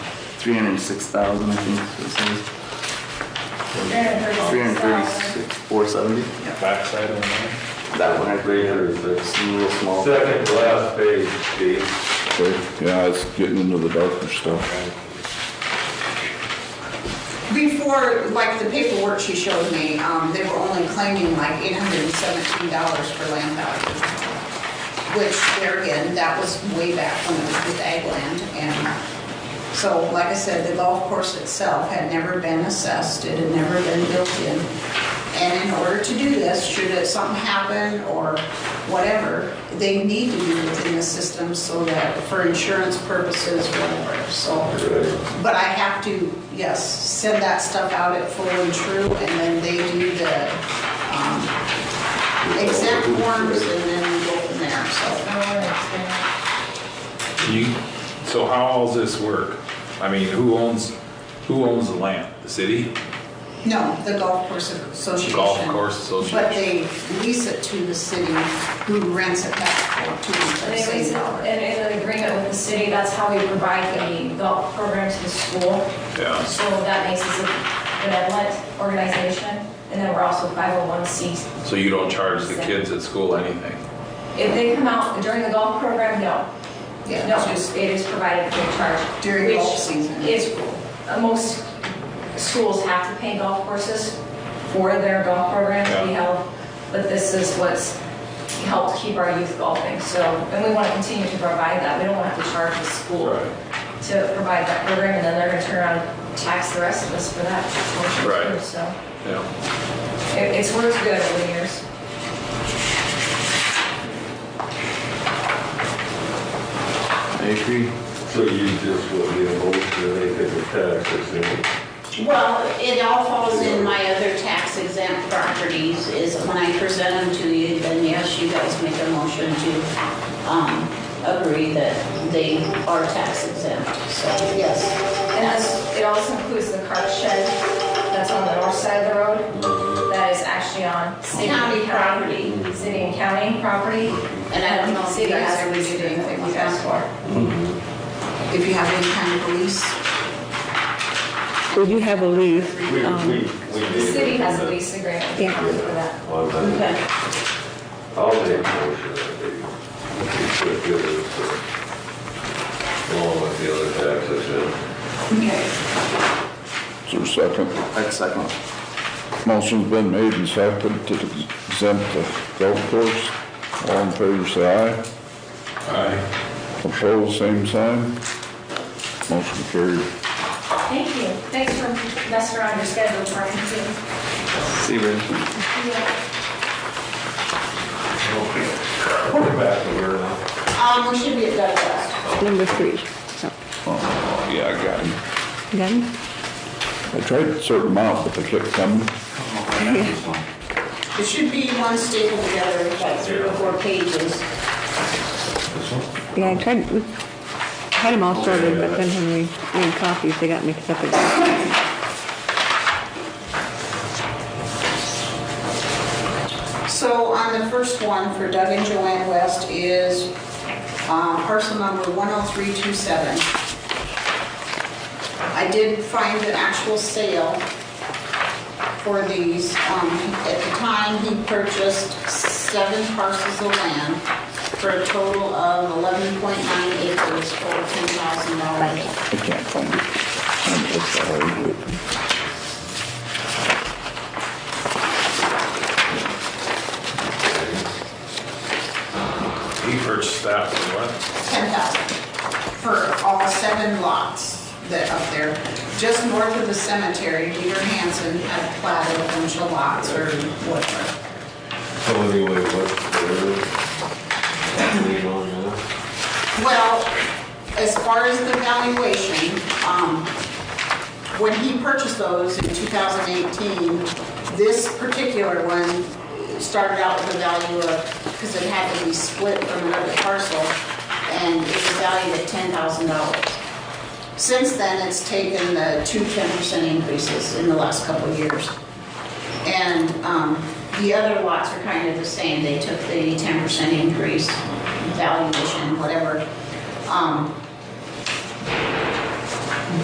306,000, I think is what it says. Three 336, 470? Backside on that. That one, I believe, or it's a little small. Second to last page, Steve. Okay, yeah, it's getting into the darker stuff. Before, like the paperwork she showed me, um, they were only claiming like eight hundred and seventeen dollars for land value. Which there again, that was way back when it was with ag land and so, like I said, the golf course itself had never been assessed, it had never been built in. And in order to do this, should it- something happen or whatever, they need to be within the system so that for insurance purposes, whatever, so. But I have to, yes, send that stuff out at full and true, and then they do the um, exempt forms, and then we go from there, so. You, so how all this work? I mean, who owns, who owns the land? The city? No, the golf course association. Golf course association. But they lease it to the city, who rents it back to them for the And it was same dollar. in, in an agreement with the city, that's how we provide the golf program to the school. Yeah. So that makes us a benevolent organization, and then we're also 501c. So you don't charge the kids at school anything? If they come out during the golf program, no. Yeah, No, it's just- it is provided free of charge. During which golf season. Is, uh, most schools have to pay golf courses for their golf program to be Yeah. held, but this is what's helped keep our youth golfing, so, and we want to continue to provide that, we don't want to have to charge the school Right. to provide that program, and then they're gonna turn around and tax the rest of us for that. portion, Right. too. So, Yeah. it- it's worked good over the years. I agree. So you just want the motion to make it a tax exempt? Well, it all falls in my other tax exempt properties, is when I present them to you, then yes, you guys make a motion to, um, agree that they are tax exempt, so, yes. And that's, it also includes the cart shed that's on the north side of the road, that is actually on city and County county, city and county property. And I don't know if City you guys has ever to do did anything anything we with asked that. for. If you have any kind of a lease, We do have a lease. We, we, um, we The need. city has a lease agreement with the Yeah. county for that. On that, Okay. I'll make a motion that they, we should give it to, along with the other tax exempt. Is there a second? I'd second. Motion's been made and seconded to exempt the golf course. All in favor, say aye. Aye. Opposed, same sign. Motion carried. Thank you, thanks for messing around your schedule, Brian, too. See, Rich. We're back to where now. Um, we should be at Douglas. Number three. Oh, yeah, I got him. Got it? I tried to sort them out, but they kept coming. It should be one staple together, like three or four pages. Yeah, I tried, we had them all sorted, but then when we made copies, they got mixed up again. So on the first one for Doug and Joanne West is uh, parcel number 10327. I did find an actual sale for these. Um, At the time, he purchased seven parcels of land for a total of 11.9 acres for $10,000. I can't find it. I'm so sorry, but- He purchased that for what? 10,000 for all seven lots that up there. Just north of the cemetery, Peter Hansen had platted a bunch of lots or whatever. So anyway, what's the, lean on that? Well, as far as the valuation, um, when he purchased those in 2018, this particular one started out with a value of, because it had to be split from another parcel, And it was valued at $10,000. Since then, it's taken the two 10% increases in the last couple of years. And um, the other lots are kind of the same. They took the 10% increase valuation, whatever. Um,